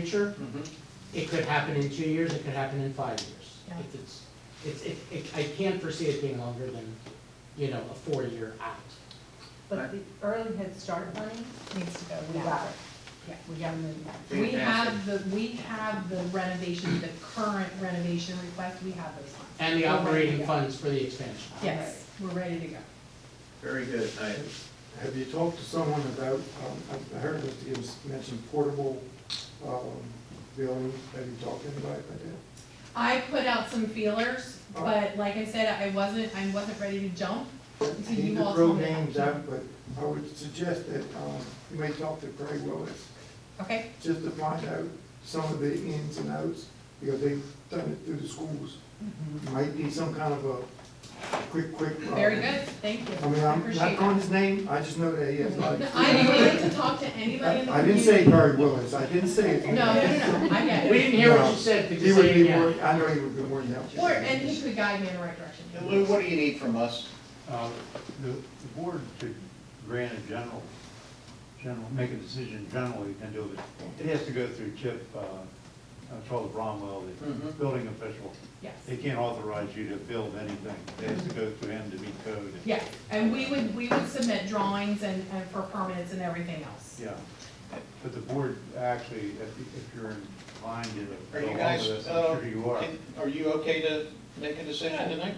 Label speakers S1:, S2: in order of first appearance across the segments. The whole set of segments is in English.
S1: future.
S2: Mhm.
S1: It could happen in two years, it could happen in five
S3: Yeah.
S1: years. If it's, it's, it, it- I can't foresee it being longer than, you know, a four-year out.
S3: But the early head start money needs to go
S4: We
S3: now.
S4: got it.
S3: Yeah, we got to move that.
S4: We have the, we have the renovation, the current renovation request, we have those funds.
S1: And the
S4: We're ready to
S1: operating
S4: go.
S1: funds for the expansion.
S4: Yes, we're ready to go.
S2: Very good. I,
S5: Have you talked to someone about, um, I- I heard that you mentioned portable, um, billing, have you talked to anybody about that?
S4: I put out some feelers, but like I said, I wasn't, I wasn't ready to jump. So
S5: He
S4: you
S5: could
S4: all
S5: throw
S4: told me.
S5: names out, but I would suggest that, um, you may talk to Craig Willis,
S4: Okay,
S5: just to find out some of the ins and outs, because they've done it through the schools. Might be some kind of a quick, quick. um,
S4: Mm-hmm. very good, thank you.
S5: I mean,
S4: I
S5: I'm not
S4: appreciate
S5: calling
S4: that.
S5: his name, I just know that he has like.
S4: No, I am willing to talk to anybody in the community.
S5: I didn't say Craig Willis, I didn't say it.
S4: No, no, no, no, I get
S1: We
S4: it.
S1: didn't hear what
S5: No.
S1: you said, could
S5: He
S1: you
S5: would
S1: say it
S5: be
S1: again?
S5: more, I know he would be more than helpful.
S4: Or, and he could guide me in the right direction.
S2: And Lou, what do you need from us?
S6: Uh, The the board could grant a general, general, make a decision generally, and do it. It has to go through Chip, uh, uh, Charles Bromwell, the
S2: Mhm.
S6: building official.
S4: Yes,
S6: They can't authorize you to build anything. It has to go through him to meet code.
S4: yes, and we would, we would submit drawings and, and for permits and everything else.
S6: Yeah. But the board actually, if if you're in line to
S2: Are you
S6: go along
S2: guys,
S6: with this,
S2: uh,
S6: I'm sure you are.
S2: can- Are you okay to make a decision tonight?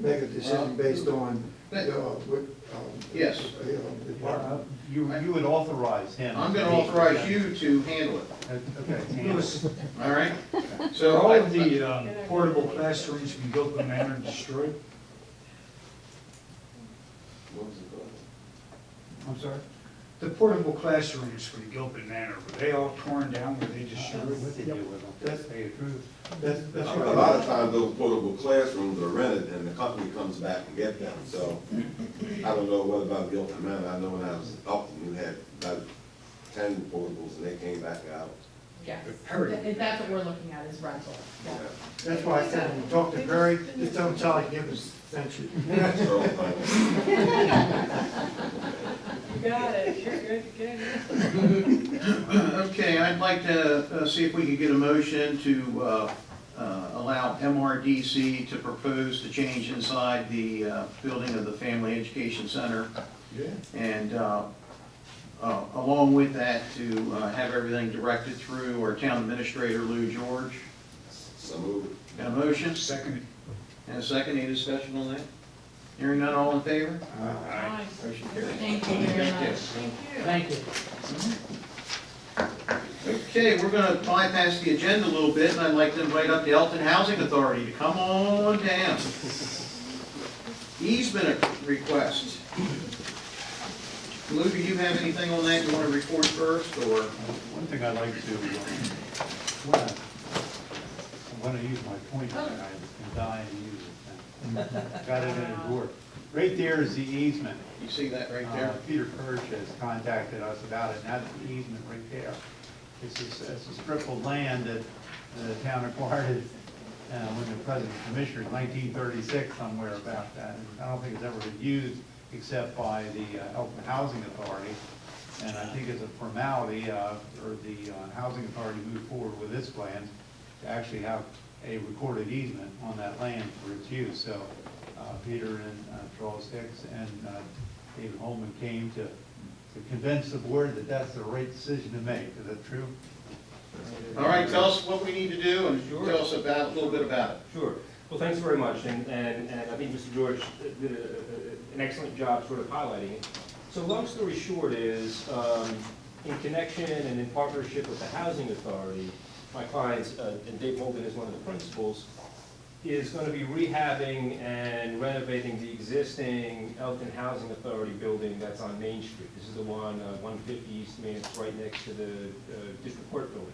S5: Make a decision based on, uh, what, um.
S2: Yes.
S5: uh, the
S6: Uh,
S5: department.
S6: You, you would authorize him.
S2: I'm gonna
S6: to meet- Uh,
S2: authorize you to handle it,
S6: Okay.
S7: Louis,
S2: all right?
S7: are
S2: So
S7: all
S2: I-
S7: of the um, portable classrooms in Gilpin Manor destroyed?
S6: I'm sorry?
S7: The portable classrooms for the Gilpin Manor, were they all torn down, were they destroyed?
S6: What they do with them?
S5: That's-
S6: They approve.
S5: That's, that's
S8: A
S5: what I
S8: lot of times those portable classrooms are rented and the company comes back and get them, so I don't know what about Gilpin Manor, I know when I was up, we had about ten portables and they came back out.
S4: Yes,
S7: Hurry.
S4: Th- that's what we're looking at is rental,
S8: you
S4: yeah.
S8: know.
S5: That's why I said, when you talk to Barry, just tell him Charlie Gibbons sent you.
S8: So, um,
S9: Got it, you're good, good.
S2: Okay, I'd like to uh, see if we could get a motion to uh, uh, allow MRDC to propose the change inside the uh, building of the Family Education Center. And uh, uh, along with that, to uh, have everything directed through our town administrator, Lou George.
S8: So moved.
S2: Got a motion?
S7: Second,
S2: And a second, any discussion on that? Hearing none, all in favor?
S5: Uh,
S7: aye.
S2: Motion carried.
S4: Thank you very
S2: Thank you.
S4: much.
S1: Thank you.
S2: Okay, we're gonna bypass the agenda a little bit, and I'd like to invite up the Elton Housing Authority to come on down. Easement request. Lou, do you have anything on that you wanna report first, or?
S6: One thing I'd like to, uh, when I, when I use my pointer, I can die and use it. now. Got it in a drawer. Right there is the easement.
S2: You see that right
S6: Uh,
S2: there?
S6: Peter Purge has contacted us about it, and that's the easement right there. It's a, it's a strip of land that the town acquired uh, when the present commissioner, nineteen thirty-six, somewhere about that. And I don't think it's ever been used except by the uh, Elton Housing Authority. And I think as a formality, uh, or the uh, Housing Authority moved forward with this plan to actually have a recorded easement on that land for its use. So uh, Peter and uh, Charles Hicks and uh, David Holman came to to convince the board that that's the right decision to make. Is that true?
S2: All right, tell us what we need to do, and
S9: Sure.
S2: tell us about, a little bit about it.
S9: Sure, well, thanks very much, and, and, and I think Mr. George did a- a- an excellent job sort of highlighting it. So long story short is, um, in connection and in partnership with the Housing Authority, my clients, uh, and Dave Holden is one of the principals, is gonna be rehabbing and renovating the existing Elton Housing Authority building that's on Main Street. This is the one, uh, one fifty East Main, it's right next to the, uh, District Court building.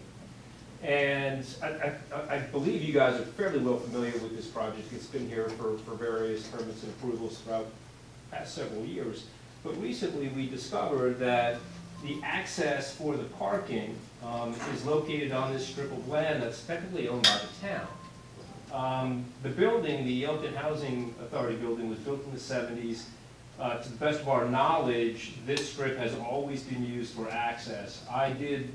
S9: And I, I- I, I believe you guys are fairly well familiar with this project, it's been here for, for various permits and approvals throughout the past several years. But recently, we discovered that the access for the parking, um, is located on this strip of land that's technically owned by the town. Um, the building, the Elton Housing Authority building, was built in the seventies, Uh, To the best of our knowledge, this strip has always been used for access. I did